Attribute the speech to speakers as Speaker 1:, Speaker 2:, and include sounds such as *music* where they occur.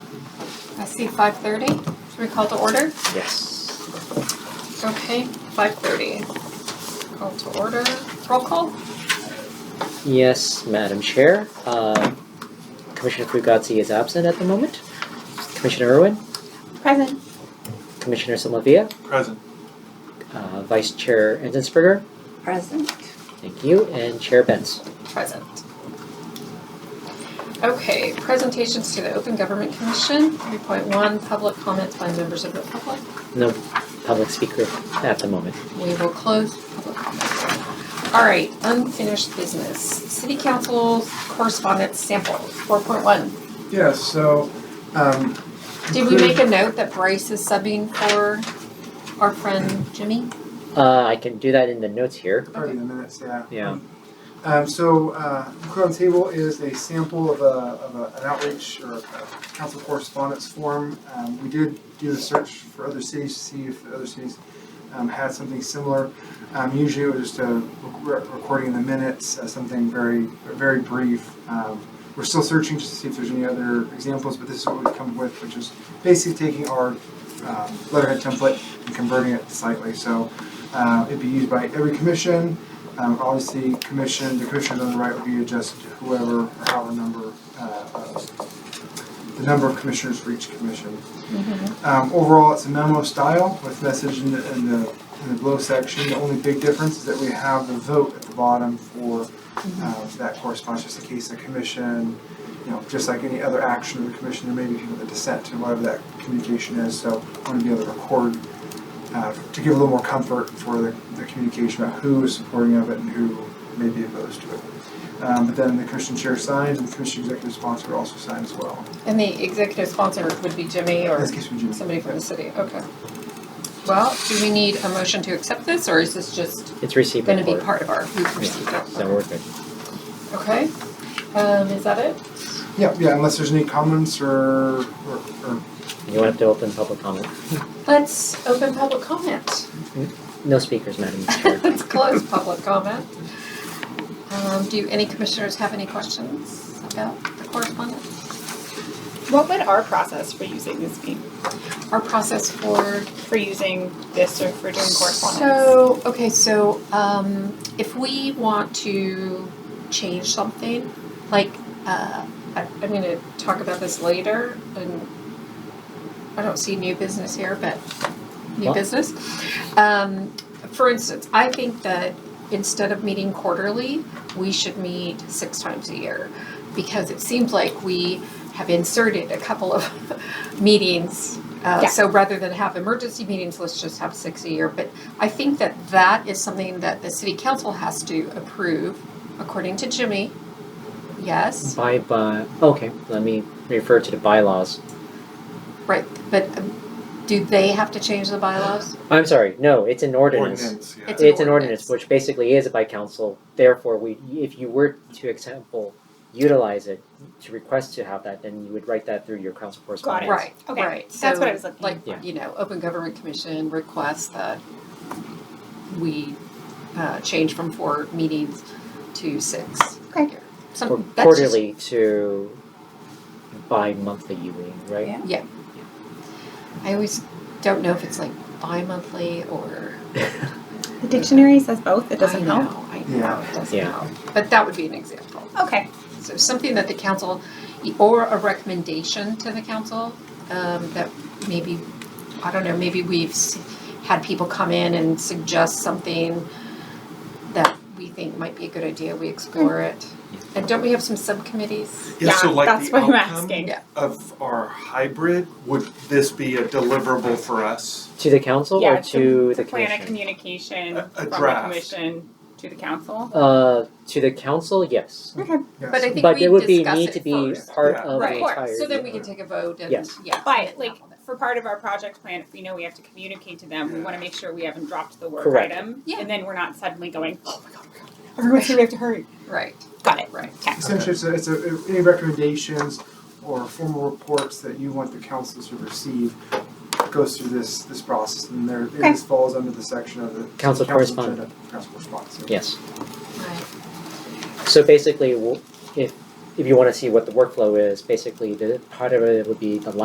Speaker 1: I see five thirty. Should we call to order?
Speaker 2: Yes.
Speaker 1: Okay, five thirty. Call to order. Roll call?
Speaker 2: Yes, Madam Chair. Uh, Commissioner Fugazzi is absent at the moment. Commissioner Irwin,
Speaker 1: Present.
Speaker 2: Commissioner Somavia,
Speaker 3: Present.
Speaker 2: uh, Vice Chair Enzensberger,
Speaker 4: Present.
Speaker 2: thank you, and Chair Benz.
Speaker 1: Present. Okay, presentations to the Open Government Commission, three point one, public comments by members of the public.
Speaker 2: No public speaker at the moment.
Speaker 1: We will close public comments. All right, unfinished business. City Council correspondence sample, four point one.
Speaker 3: Yeah, so, um,
Speaker 1: Did we make a note that Bryce is subbing for our friend Jimmy?
Speaker 2: Uh, I can do that in the notes here.
Speaker 3: pardon the minutes, yeah.
Speaker 2: Yeah.
Speaker 3: Um, so, uh, included on the table is a sample of a, of a, an outreach or a council correspondence form. Um, we did do the search for other cities to see if other cities, um, had something similar. Um, usually it was just a rec- recording the minutes, uh, something very, very brief. Um, we're still searching just to see if there's any other examples, but this is what we've come with, which is basically taking our, um, letterhead template and converting it slightly. So, uh, it'd be used by every commission, um, obviously, commission, the commissioners on the right would be adjusted to whoever, or however number, uh, of- the number of commissioners for each commission. Um, overall, it's a memo style with message in the, in the, in the below section. The only big difference is that we have the vote at the bottom for, um, that corresponds just in case the commission, you know, just like any other action of the commission, there may be people that dissent to whatever that communication is, so I wanna be able to record uh, to give a little more comfort for the, the communication about who is supporting of it and who may be opposed to it. Um, but then the commission chair signs and the commission executive sponsor also signs as well.
Speaker 1: And the executive sponsor would be Jimmy
Speaker 3: In
Speaker 1: or
Speaker 3: this case, we do.
Speaker 1: somebody from the city, okay. Well, do we need a motion to accept this, or is this just
Speaker 2: It's received.
Speaker 1: gonna be
Speaker 2: before.
Speaker 1: part of our, we've received
Speaker 2: Yeah,
Speaker 1: it?
Speaker 2: So we're good.
Speaker 1: Okay, um, is that it?
Speaker 3: Yeah, yeah, unless there's any comments or, or, or,
Speaker 2: You won't have to open public comment.
Speaker 1: Let's open public comment. *laughs*
Speaker 2: No speakers, Madam Chair.
Speaker 1: Let's close public comment. Um, do any commissioners have any questions about the correspondence?
Speaker 4: What would our process for using this be?
Speaker 1: Our process for
Speaker 4: For using this or for doing correspondence?
Speaker 1: So, okay, so um, if we want to change something, like, uh, I, I'm going to talk about this later, and I don't see new business here, but new
Speaker 2: What?
Speaker 1: business. Um, for instance, I think that instead of meeting quarterly, we should meet six times a year because it seems like we have inserted a couple of *laughs* meetings. Uh,
Speaker 4: Yeah.
Speaker 1: So rather than have emergency meetings, let's just have six a year. But I think that that is something that the city council has to approve, according to Jimmy. Yes,
Speaker 2: Bye bye. Okay, let me refer to the bylaws.
Speaker 1: right. But um, do they have to change the bylaws?
Speaker 2: I'm sorry. No, it's an ordinance.
Speaker 3: ordinance, yeah.
Speaker 1: It's-
Speaker 2: It's
Speaker 1: an ordinance.
Speaker 2: an ordinance, which basically is by council, therefore we, if you were to example, utilize it, to request to have that, then you would write that through your council correspondence.
Speaker 1: Right,
Speaker 4: Okay,
Speaker 1: right.
Speaker 4: that's what I
Speaker 1: So,
Speaker 4: was looking
Speaker 1: Like,
Speaker 2: for.
Speaker 1: you know, Open Government Commission requests that we uh, change from four meetings to six.
Speaker 4: Okay.
Speaker 2: Or
Speaker 1: Some, Um, that's just-
Speaker 2: quarterly to bi-monthly, you mean, right?
Speaker 4: Yeah.
Speaker 1: yeah. I always don't know if it's like bi-monthly or.
Speaker 4: The dictionary says both, it
Speaker 1: I
Speaker 4: doesn't
Speaker 1: know,
Speaker 4: help.
Speaker 1: I know, it doesn't
Speaker 2: Yeah.
Speaker 1: help. But that would be an example.
Speaker 4: Okay,
Speaker 1: So something that the council, or a recommendation to the council, um, that maybe, I don't know, maybe we've s- had people come in and suggest something that we think might be a good idea, we explore it. And don't we have some subcommittees?
Speaker 5: Yeah, so
Speaker 4: Yeah,
Speaker 5: like
Speaker 4: that's
Speaker 5: the
Speaker 4: what I'm
Speaker 5: outcome
Speaker 4: asking.
Speaker 1: Yeah.
Speaker 5: of our hybrid, would this be a deliverable for us?
Speaker 2: To the council
Speaker 5: Yeah,
Speaker 2: or to the commission?
Speaker 4: plan a communication
Speaker 5: A- a
Speaker 4: from the
Speaker 5: draft.
Speaker 4: commission to the council.
Speaker 2: Uh, to the council, yes,
Speaker 3: yes.
Speaker 1: But I think
Speaker 2: but it would
Speaker 1: we
Speaker 2: be,
Speaker 1: discuss
Speaker 2: need to
Speaker 1: it
Speaker 2: be
Speaker 1: first.
Speaker 2: part
Speaker 5: Yeah.
Speaker 2: of the
Speaker 1: Right.
Speaker 2: entire.
Speaker 1: So then we can take a vote and, yeah.
Speaker 2: Yes.
Speaker 4: But like, for part of our project plan, if we know we have to communicate to them, we wanna make sure we haven't dropped the word
Speaker 2: Correct.
Speaker 4: item.
Speaker 1: Yeah.
Speaker 4: And then we're not suddenly going, oh my god, oh my god, everyone said we have to hurry.
Speaker 1: Right,
Speaker 4: Got it,
Speaker 1: right.
Speaker 4: okay.
Speaker 3: Essentially, it's a, it's a, any recommendations or formal reports that you want the council to receive goes through this, this process and there, and this falls under the section of the.
Speaker 2: Council correspondence.
Speaker 3: agenda- Council correspondence. yeah.
Speaker 2: Yes.
Speaker 1: Right.
Speaker 2: So basically, w- if, if you wanna see what the workflow is, basically the part of it would be the